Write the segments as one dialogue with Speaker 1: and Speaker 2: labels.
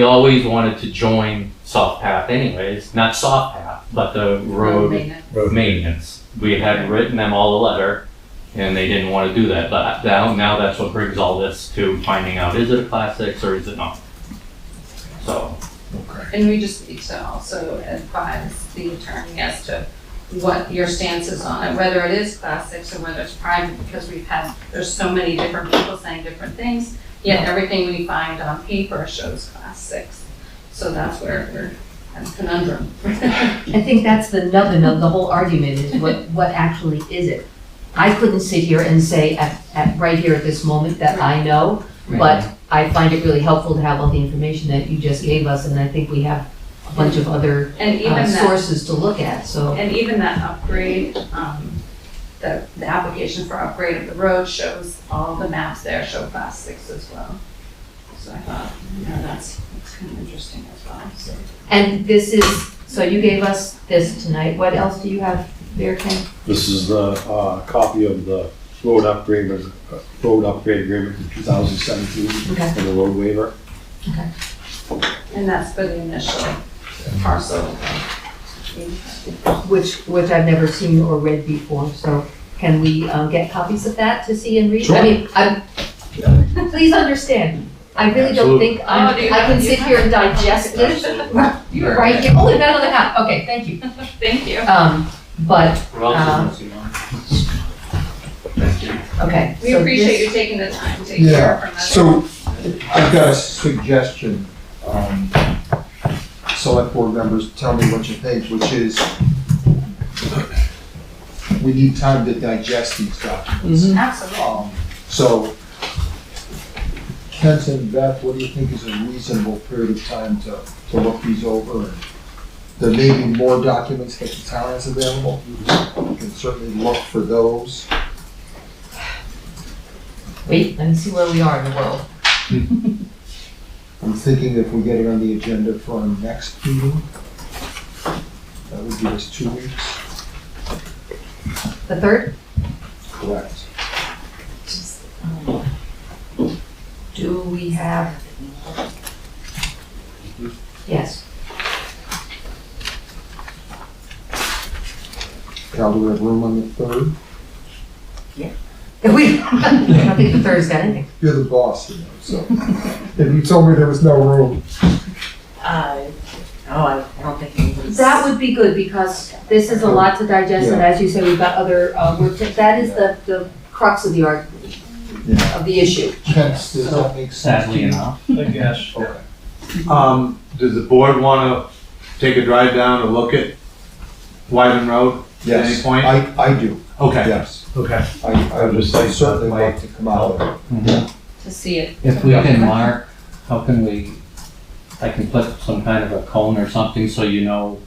Speaker 1: We always wanted to join Soft Path anyways, not Soft Path, but the road
Speaker 2: maintenance.
Speaker 3: Road
Speaker 1: maintenance. We had written them all a letter, and they didn't want to do that, but now, now that's what brings all this to finding out, is it a class six or is it not? So,
Speaker 3: Okay.
Speaker 2: And we just need to also advise the attorney as to what your stance is on it, whether it is class six or whether it's private, because we've had, there's so many different people saying different things, yet everything we find on paper shows class six. So that's where we're, that's a conundrum.
Speaker 4: I think that's the nubbin of the whole argument is what, what actually is it? I couldn't sit here and say at, at, right here at this moment that I know, but I find it really helpful to have all the information that you just gave us, and I think we have a bunch of other
Speaker 2: And even
Speaker 4: uh,
Speaker 2: that
Speaker 4: sources to look at, so.
Speaker 2: And even that upgrade, um, the, the application for upgrade of the road shows, all the maps there show class six as well. So I thought, you know, that's, that's kind of interesting as well, so.
Speaker 4: And this is, so you gave us this tonight, what else do you have there, Ken?
Speaker 5: This is the uh, copy of the road upgrade, uh, road upgrade agreement from 2017
Speaker 4: Okay.
Speaker 5: and the road waiver.
Speaker 2: And that's for the initial parcel.
Speaker 4: Which, which I've never seen or read before, so can we, um, get copies of that to see and read? I
Speaker 5: Sure.
Speaker 4: mean, I'm, please understand, I really don't
Speaker 5: Absolutely.
Speaker 4: think, I'm-
Speaker 2: Oh, do you
Speaker 4: I
Speaker 2: have-
Speaker 4: can
Speaker 2: you
Speaker 4: sit
Speaker 2: have-
Speaker 4: here and digest this
Speaker 2: You were
Speaker 4: right here, oh, and that on the hat, okay, thank you.
Speaker 2: Thank you.
Speaker 4: Um, but, um,
Speaker 1: what else is missing?
Speaker 4: okay.
Speaker 2: We
Speaker 4: so
Speaker 2: appreciate
Speaker 4: this-
Speaker 2: you taking the time to hear
Speaker 3: Yeah,
Speaker 2: from us.
Speaker 3: so I've got a suggestion. um, Select board members, tell me what you think, which is we need time to digest these documents.
Speaker 2: Absolutely.
Speaker 3: Um, So Kent and Beth, what do you think is a reasonable period of time to, to look these over? And There may be more documents that the town has available. You can certainly look for those.
Speaker 4: Wait, let me see where we are in the world.
Speaker 3: I'm thinking if we get it on the agenda for our next meeting, that would give us two weeks.
Speaker 4: The third?
Speaker 3: Correct.
Speaker 4: Do we have?
Speaker 5: Mm-hmm.
Speaker 4: Yes,
Speaker 3: Cal, do we have room on the third?
Speaker 4: we, I don't think the third's got anything.
Speaker 3: You're the boss, you know, so. If you told me there was no room,
Speaker 6: Uh, oh, I, I don't think anybody's.
Speaker 4: That would be good, because this is a lot to digest, and as you say, we've got other, uh, work, to- that is the, the crux of the art,
Speaker 3: Yeah.
Speaker 4: of the issue.
Speaker 3: Kent, does that make sense to
Speaker 1: Sadly
Speaker 3: you?
Speaker 1: enough.
Speaker 7: I guess.
Speaker 3: Okay.
Speaker 7: Um, does the board wanna take a drive down and look at Wyven Road? At any
Speaker 3: Yes,
Speaker 7: point?
Speaker 3: I, I do,
Speaker 7: Okay.
Speaker 3: yes.
Speaker 7: Okay.
Speaker 3: I, I
Speaker 7: I'm
Speaker 3: would
Speaker 7: just like-
Speaker 3: certainly like to come out of it.
Speaker 2: To see it.
Speaker 8: Mm-hmm. If we can mark, how can we, I can put some kind of a cone or something so you know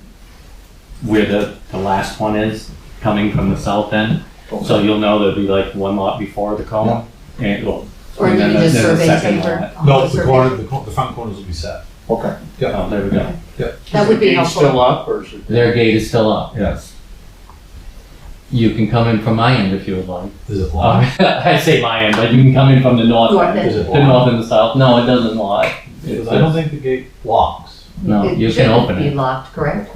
Speaker 8: where the, the last one is coming from the south end. So you'll know there'll be like one lot before the cone. And, well,
Speaker 4: Or
Speaker 8: And
Speaker 4: you
Speaker 8: then
Speaker 4: can just
Speaker 8: there's a
Speaker 4: survey
Speaker 8: second
Speaker 4: paper.
Speaker 7: No, the corner, the, cor- the front corners will be set.
Speaker 3: Okay,
Speaker 8: oh, there we go.
Speaker 4: That would be
Speaker 7: Still
Speaker 4: helpful.
Speaker 7: up or is it?
Speaker 8: Their gate is still up.
Speaker 7: Yes.
Speaker 8: You can come in from my end if you would like.
Speaker 7: Is it
Speaker 8: Uh,
Speaker 7: blocked?
Speaker 8: I say my end, but you can come in from the north
Speaker 4: North
Speaker 8: end.
Speaker 4: end.
Speaker 7: Is
Speaker 8: The
Speaker 7: it blocked?
Speaker 8: north and the south. No, it doesn't lock.
Speaker 7: Because Uh, I don't think the gate locks.
Speaker 8: No,
Speaker 4: It
Speaker 8: you can
Speaker 4: shouldn't
Speaker 8: open
Speaker 4: Be
Speaker 8: it.
Speaker 4: locked, correct?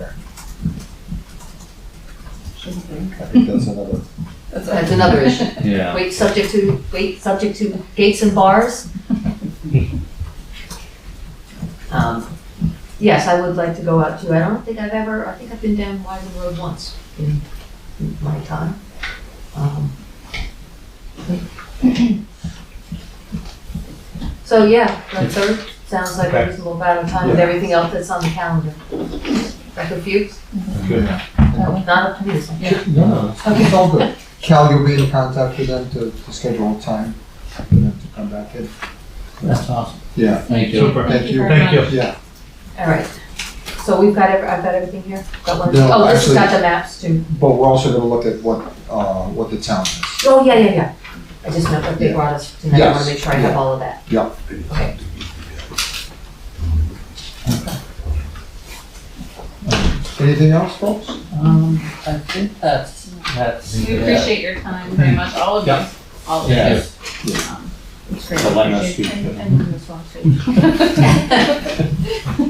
Speaker 3: I think that's another,
Speaker 4: That's another issue.
Speaker 8: Yeah.
Speaker 4: Wait, subject to, wait, subject to gates and bars? Um, Yes, I would like to go out too. I don't think I've ever, I think I've been down Wyven Road once in in my time. Um, So yeah, the third sounds like a reasonable amount of time with everything else that's on the calendar. Dr. Fuchs?
Speaker 7: Good.
Speaker 4: That was not up to me. so-
Speaker 3: no, no, it's all good. Cal, you'll be in contact with them to, to schedule a time for them to come back in.
Speaker 8: That's awesome.
Speaker 3: Yeah,
Speaker 8: Thank you.
Speaker 7: Super.
Speaker 3: thank you.
Speaker 2: very
Speaker 7: Thank you.
Speaker 3: Yeah,
Speaker 4: All right, so we've got, every- I've got everything here? Got one,
Speaker 3: No,
Speaker 4: oh, this has
Speaker 3: actually-
Speaker 4: got the maps too.
Speaker 3: But we're also gonna look at what, uh, what the town is.
Speaker 4: Oh, yeah, yeah, yeah. I just meant that they brought us tonight, I wanna make sure I have all of that.
Speaker 3: Yeah.
Speaker 4: Okay.
Speaker 3: Anything else, folks?
Speaker 8: Um, I think that's, that's.
Speaker 2: We appreciate your time very much, all of you, all of you.
Speaker 8: Yeah.
Speaker 2: Um, It's great.
Speaker 8: For letting us speak.
Speaker 2: And- and you as well, too.